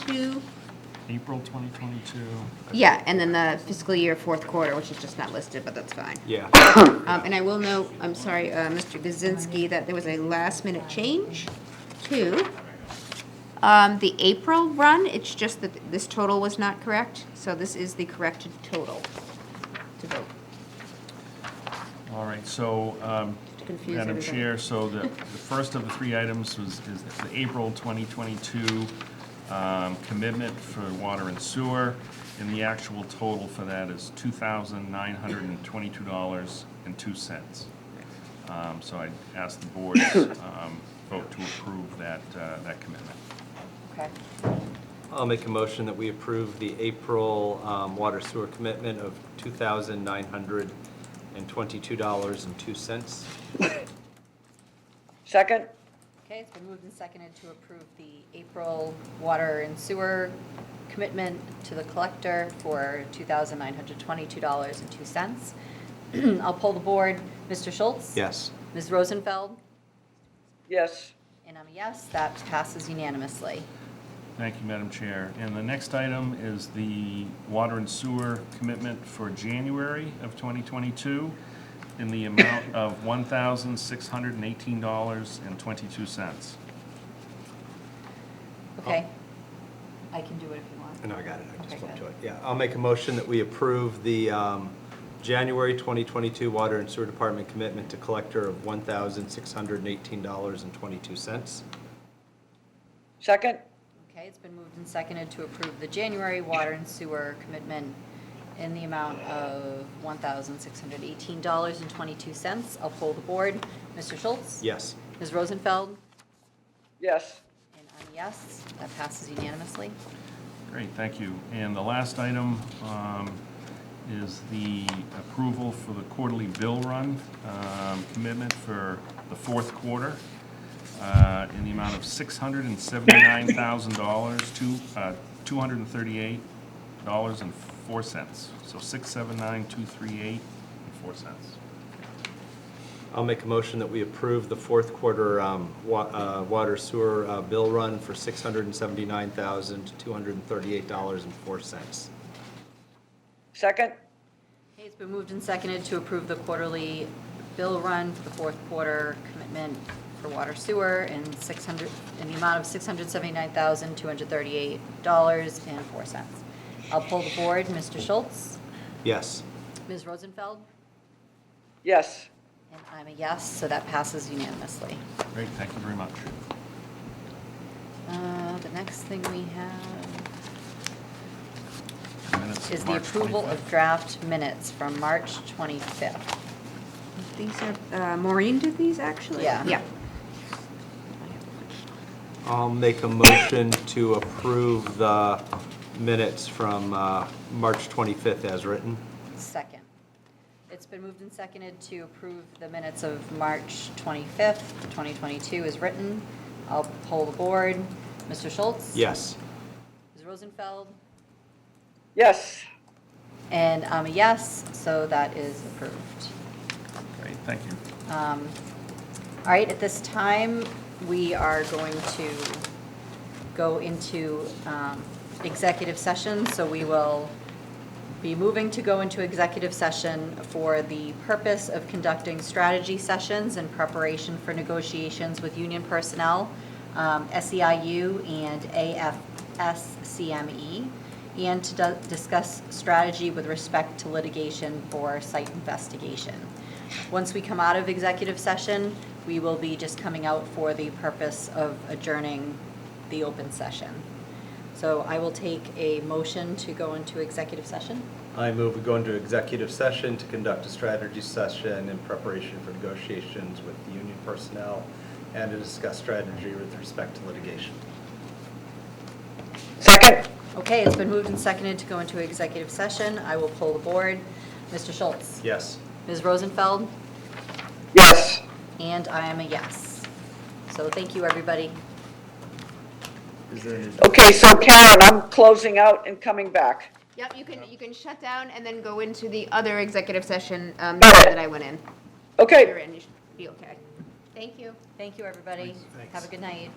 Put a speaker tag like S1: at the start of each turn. S1: 2022.
S2: April 2022.
S1: Yeah, and then the fiscal year fourth quarter, which is just not listed, but that's fine.
S2: Yeah.
S1: Um, And I will note, I'm sorry, uh, Mr. Gazinski, that there was a last-minute change to um, the April run. It's just that this total was not correct, so this is the corrected total to vote.
S2: All right, so, um,
S1: To confuse
S2: Madam
S1: everybody.
S2: Chair, so the, the first of the three items was, is the April 2022 um, commitment for water and sewer, and the actual total for that is $2,922.02. Um, So I ask the board's um, vote to approve that, uh, that commitment.
S1: Okay.
S3: I'll make a motion that we approve the April um, water sewer commitment of $2,922.02.
S4: Second?
S5: Okay, it's been moved and seconded to approve the April water and sewer commitment to the collector for $2,922.02. I'll poll the board. Mr. Schultz?
S3: Yes.
S5: Ms. Rosenfeld?
S4: Yes.
S5: And I'm a yes. That passes unanimously.
S2: Thank you, Madam Chair. And the next item is the water and sewer commitment for January of 2022 in the amount of $1,618.22.
S5: Okay? I can do it if you want.
S3: No, I got it, I just
S5: Okay,
S3: went
S5: good.
S3: to it. Yeah, I'll make a motion that we approve the um, January 2022 Water and Sewer Department commitment to collector of $1,618.22.
S4: Second?
S5: Okay, it's been moved and seconded to approve the January water and sewer commitment in the amount of $1,618.22. I'll poll the board. Mr. Schultz?
S3: Yes.
S5: Ms. Rosenfeld?
S4: Yes.
S5: And I'm a yes. That passes unanimously.
S2: Great, thank you. And the last item um, is the approval for the quarterly bill run um, commitment for the fourth quarter uh, in the amount of $679,000 to $238.04. So 679,238 and 4 cents.
S3: I'll make a motion that we approve the fourth quarter um, wa- uh, water sewer uh, bill run for $679,238.04.
S4: Second?
S5: Okay, it's been moved and seconded to approve the quarterly bill run for the fourth quarter commitment for water sewer in 600, in the amount of $679,238.04. I'll pull the board. Mr. Schultz?
S3: Yes.
S5: Ms. Rosenfeld?
S4: Yes.
S5: And I'm a yes, so that passes unanimously.
S2: Great, thank you very much.
S5: Uh, The next thing we have
S2: Minutes of
S5: is the
S2: March
S5: approval
S2: 25th.
S5: of draft minutes from March 25th.
S1: These are, uh, Maureen did these, actually?
S5: Yeah.
S1: Yeah.
S3: I'll make a motion to approve the minutes from uh, March 25th as written.
S5: Second. It's been moved and seconded to approve the minutes of March 25th, 2022 as written. I'll poll the board. Mr. Schultz?
S3: Yes.
S5: Ms. Rosenfeld?
S4: Yes.
S5: And I'm a yes, so that is approved.
S2: Great, thank you.
S5: Um, All right, at this time, we are going to go into um, executive session, so we will be moving to go into executive session for the purpose of conducting strategy sessions in preparation for negotiations with union personnel, um, SEIU and AFSCME, E, and to du- discuss strategy with respect to litigation for site investigation. Once we come out of executive session, we will be just coming out for the purpose of adjourning the open session. So I will take a motion to go into executive session.
S3: I move we go into executive session to conduct a strategy session in preparation for negotiations with the union personnel and to discuss strategy with respect to litigation.
S4: Second?
S5: Okay, it's been moved and seconded to go into executive session. I will poll the board. Mr. Schultz?
S3: Yes.
S5: Ms. Rosenfeld?
S4: Yes.
S5: And I am a yes. So thank you, everybody.
S4: Okay, so Karen, I'm closing out and coming back.
S1: Yep, you can, you can shut down and then go into the other executive session um,
S4: Got it.
S1: that I went in.
S4: Okay.
S1: You're in, you should be okay.
S5: Thank you. Thank you, everybody. Have a good night.